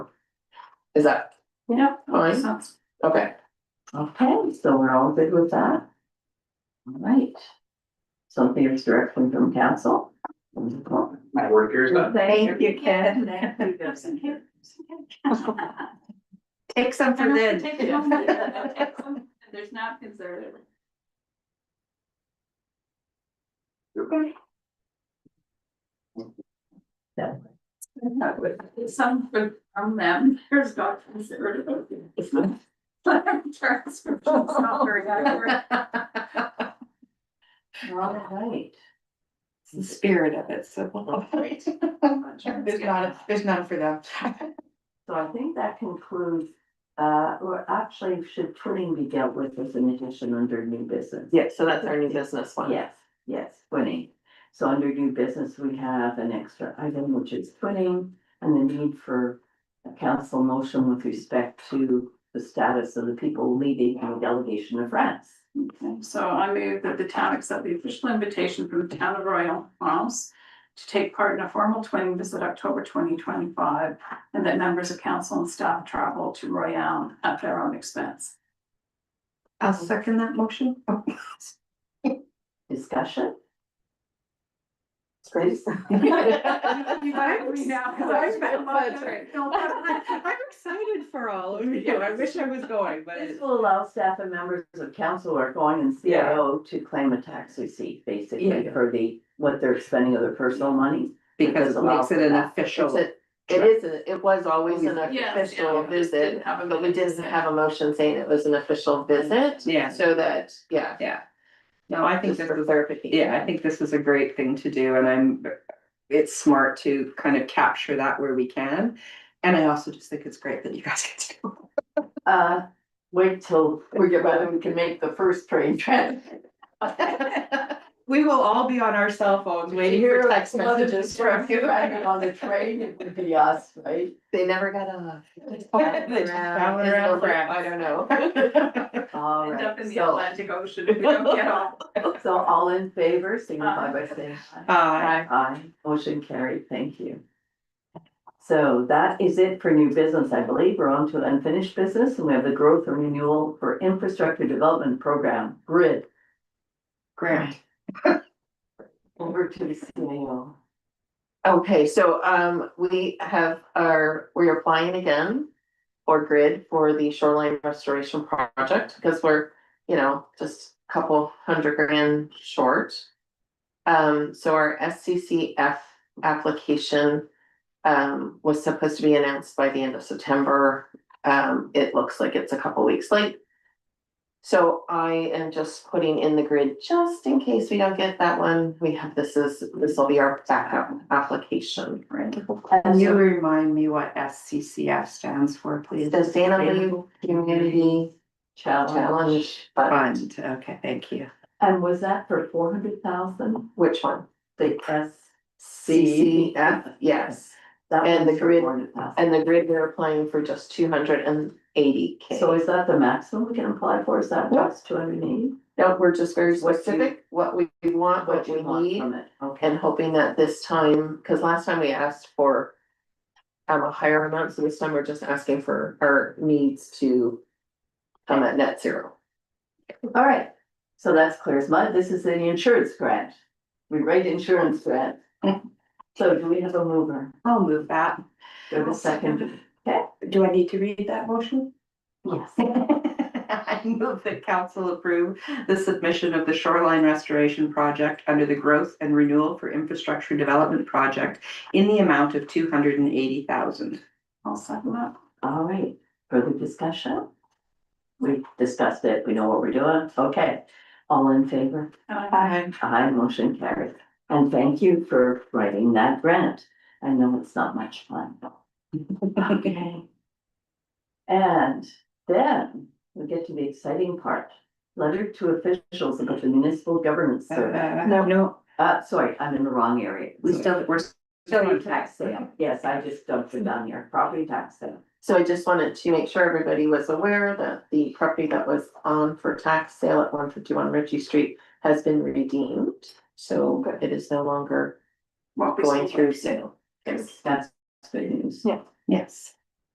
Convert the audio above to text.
Is that Yeah. fine? sounds- Okay. Okay, so we're all good with that? All right. Something is directly from council. Wonderful. My work here is done. Thank you, Ken. Thank you, Ken. Take some for I'll then. take some. I'll take There's napkins there. Some for, from them, there's not considered. Transcription's not very accurate. All right. the spirit of it, so. we'll- There's not, there's none for them. So I think that concludes, uh, or actually should putting be dealt with as an addition under new business? Yeah, so that's our new business one. Yes, yes, twinning. So under new business, we have an extra item, which is twinning and the need for a council motion with respect to the status of the people leading our delegation of France. Okay, So I move that the town accept the official invitation from the town of Royal Palms to take part in a formal twinning visit October twenty twenty-five, and that members of council and staff travel to Royale at their own expense. I'll second that motion. Oh, Discussion? Grace. You might agree now, 'cause I spent a lot of it. I'm excited for all of you. I wish I was going, but This will allow staff and members of council who are going in CIO to claim a tax receipt, basically, Yeah. for the, what they're spending of their personal money. because it makes it an It's official. a- It is, a- it was always an Yeah, official yeah, we just visit, didn't have a but we didn't visit. have a motion saying it was an official visit. Yeah. So that, yeah. Yeah. No, I think Just this for is, clarification. yeah, I think this is a great thing to do and I'm, it's smart to kind of capture that where we can. And I also just think it's great that you guys get to. do Uh, wait till We get whether we can make the first train trip. it. We will all be on our cell phones waiting Here, for text love it, messages just from you. Driving on the train, it would be us, right? They never got off. They just traveling traveled around over- France. I don't know. All End up right, in the so, Atlantic Ocean if we don't get off. so all in favor, signify by saying aye. Uh, Aye, motion carried, thank you. So that is it for new business, I believe. We're on to unfinished business and we have the growth and renewal for infrastructure development program, grid. Grant. Over to the CAO. Okay, so um, we have our, we're applying again for grid for the shoreline restoration project, because we're, you know, just a couple hundred grand short. Um, so our SCCF application um, was supposed to be announced by the end of September. Um, it looks like it's a couple weeks late. So I am just putting in the grid just in case we don't get that one. We have, this is, this will be our backup application. Can you remind me what SCCF stands for, please? The Santa Fe Community Challenge Fund, Fund, okay, thank you. And was that for four hundred thousand? which one? The S. CCF, yes. That And one's the for grid- four hundred thousand. And the grid, we're applying for just two hundred and eighty K. So is that the maximum we can apply for? Is that just two hundred and eighty? No, we're just very What you- specific, what we want, what we need. From it, okay. And hoping that this time, because last time we asked for um, a higher amount, so this time we're just asking for our needs to come at net zero. All right, so that's clear as mud. This is an insurance grant. We write insurance grant. So do we have a mover? I'll move that. Do we have a second? Do I need to read that motion? Yes. I move that council approve the submission of the shoreline restoration project under the growth and renewal for infrastructure development project in the amount of two hundred and eighty thousand. I'll second that. All right, further discussion? We discussed it. We know what we're doing. Okay, all in favor? Aye. Aye, motion carried. And thank you for writing that grant. I know it's not much fun. Okay. And then we get to the exciting part. Letter to officials about the municipal government survey. No, no, Uh, sorry, I'm in the wrong area. we still, we're still Property on tax tax. sale. Yes, I just dumped it down here. Property tax sale. So I just wanted to make sure everybody was aware that the property that was on for tax sale at one fifty-one Ritchie Street has been redeemed. So it is no longer What we going sold. through sale. That's good news. Yeah. Yes.